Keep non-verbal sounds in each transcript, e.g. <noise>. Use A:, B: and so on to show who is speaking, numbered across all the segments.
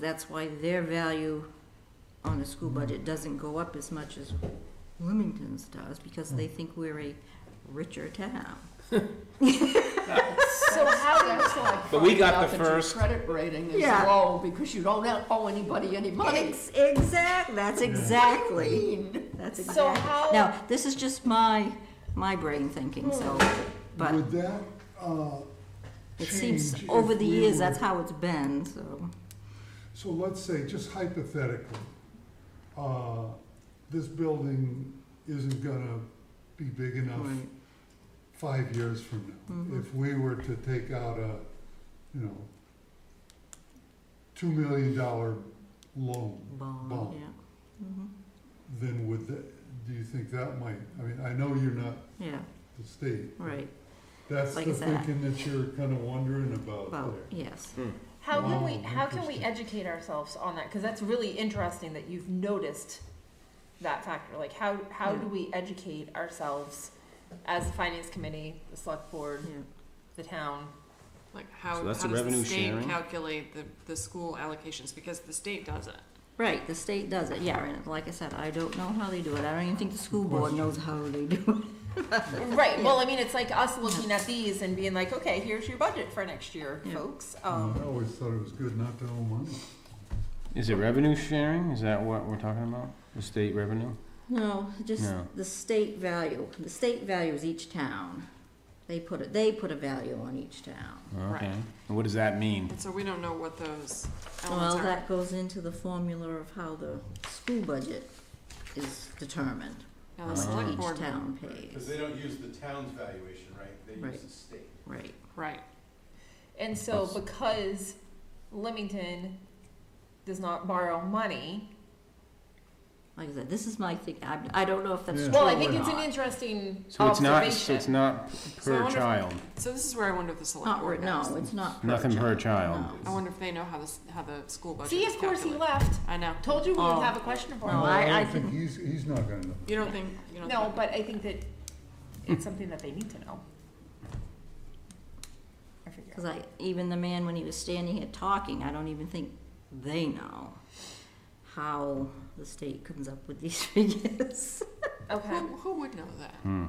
A: that's why their value on the school budget doesn't go up as much as Bloomington's does, because they think we're a richer town.
B: So how do you like?
C: But we
B: finding
C: got
B: out that
C: the
B: your
C: first-
B: Credit rating is
A: Yeah.
B: low because you don't owe anybody any money.
A: Ex- exact, that's exactly,
B: Mean.
A: that's
B: So
A: exactly.
B: how-
A: Now, this is just my, my brain thinking, so, but
D: Would that, uh,
A: it seems,
D: change
A: over
D: if
A: the
D: we
A: years,
D: were-
A: that's how it's been, so.
D: So let's say, just hypothetically, uh, this building isn't gonna be big enough
A: Right.
D: five years from now.
A: Mhm.
D: If we were to take out a, you know, two million dollar loan,
A: Bond,
D: Bond.
A: yeah. Mhm.
D: then would that, do you think that might, I mean, I know you're not
A: Yeah,
D: the state.
A: right,
D: That's
A: Like
D: the
A: that.
D: thinking that you're kinda wondering about
A: well,
D: there.
A: yes.
E: How can we
D: Wow,
C: Oh,
E: how can we
D: interesting.
E: educate ourselves on that? Because that's really interesting that you've noticed that factor. Like how how do
A: Yeah.
E: we educate ourselves as the finance committee, the select board,
A: Yeah.
E: the town?
F: Like how,
C: So
F: how
C: that's
F: does
C: the revenue
F: the state
C: sharing?
F: calculate the, the school allocations, because the state does it.
A: Right, the state does it, yeah, and like I said, I don't know how they do it, I don't even think the school board
D: Question.
A: knows how they do
E: right. Well, I mean, it's like us looking at these and being like, okay, here's your budget for next year,
A: Yeah.
E: folks.
D: I
E: Um,
D: always thought it was good not to owe money.
C: Is it revenue sharing? Is that what we're talking about? The state revenue?
A: it. No, just
C: No.
A: the state value, the state values each town, they put it, they put a value on each town.
C: Okay.
F: Right.
C: And what does that mean?
F: And so we don't know what those
A: Well,
F: elements are.
A: that goes into the formula of how the school budget is determined,
F: Now,
A: how
F: the
C: Oh.
A: much
F: select
A: each
F: board,
A: town
G: Because
A: pays,
G: they don't use the town's valuation, right? They use
A: Right.
G: the state.
A: right,
F: right,
E: and so because Leamington does not borrow money,
A: like I said, this is my thing, I, I don't know if that's
D: Yeah.
A: true or not.
E: well, I think it's an interesting
C: So it's not, so
E: observation.
C: it's not
F: Oh, So I
C: per
F: wonder if-
C: child.
F: so this is where I wonder if the select
A: Not,
F: board
A: re-
F: knows.
A: no, it's not per
C: Nothing per
A: child,
C: child.
F: I
A: no.
F: wonder if they know how this, how the school budget
E: See,
F: is
E: of course, he
F: calculated.
E: left.
F: I know.
E: Told you we would
A: Oh.
E: have a question for
A: No,
E: him.
A: I-
D: don't
A: I
D: think
A: think-
D: He's, he's not gonna know.
F: You don't think, you don't think.
E: No, but I think that it's something that they need to know. I figure.
A: Because I, even the man, when he was standing here talking, I don't even think they know how the state comes up with these <laughs> figures.
E: Okay.
F: Who, who would know that?
C: Hmm.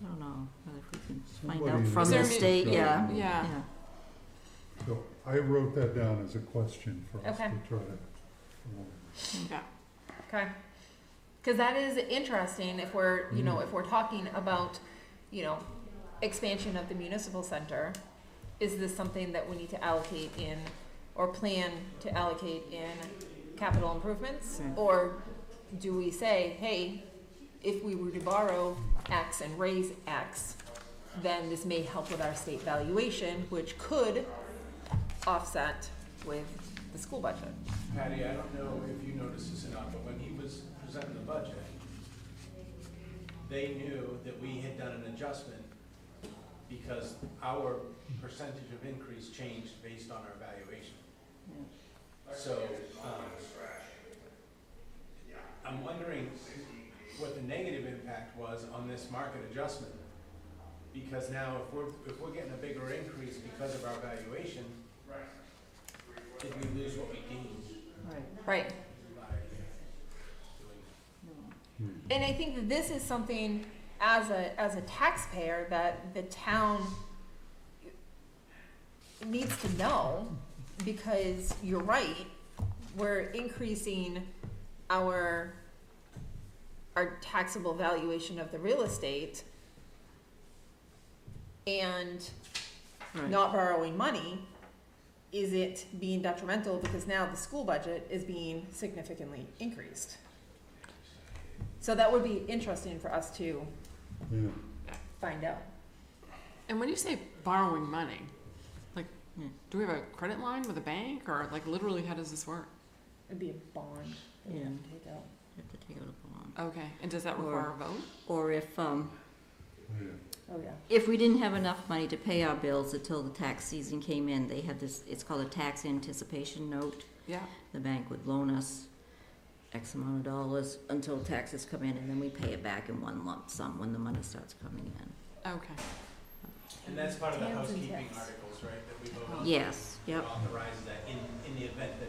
A: I don't know, whether if we can find
D: Somebody
A: out
D: in
A: from
F: the
A: the
F: state
A: state,
D: knows.
A: yeah,
F: Yeah,
A: yeah.
D: So I wrote that down as a question for us to
E: Okay.
D: try to.
F: yeah.
E: Okay. Because that is interesting if we're, you know, if we're talking about, you know, expansion of the municipal center, is this something that we need to allocate in or plan to allocate in capital improvements?
A: Yeah.
E: Or do we say, hey, if we were to borrow X and raise X, then this may help with our state valuation, which could offset with the school budget?
G: Patty, I don't know if you noticed this or not, but when he was presenting the budget, they knew that we had done an adjustment because our percentage of increase changed based on our valuation. So, um, I'm wondering what the negative impact was on this market adjustment. Because now if we're, if we're getting a bigger increase because of our valuation, did we lose what we gained?
E: Right. And I think that this is something as a as a taxpayer that the town needs to know because you're right, we're increasing our our taxable valuation of the real estate and
A: Right,
E: not borrowing money, is it being detrimental because now the school budget is being significantly increased? So that would be interesting for us to
D: Yeah,
E: find out.
F: And when you say borrowing money, like,
A: Yeah.
F: do we have a credit line with a bank, or like literally, how does this work?
E: It'd be a bond. that we
A: Yeah.
E: have to take out.
A: have to take it up along.
F: Okay, and does that
A: Or-
F: require a vote?
A: Or if, um,
D: yeah.
E: Oh, yeah.
A: if we didn't have enough money to pay our bills until the tax season came in, they had this, it's called a tax anticipation note.
F: Yeah,
A: the bank would loan us X amount of dollars until taxes come in, and then we pay it back in one lump sum when the money starts coming in.
F: okay.
G: And that's part of the
E: Towns and
G: housekeeping
E: tax.
G: articles, right, that we voted on?
A: Yes, yep.
G: Authorize that in, in the event that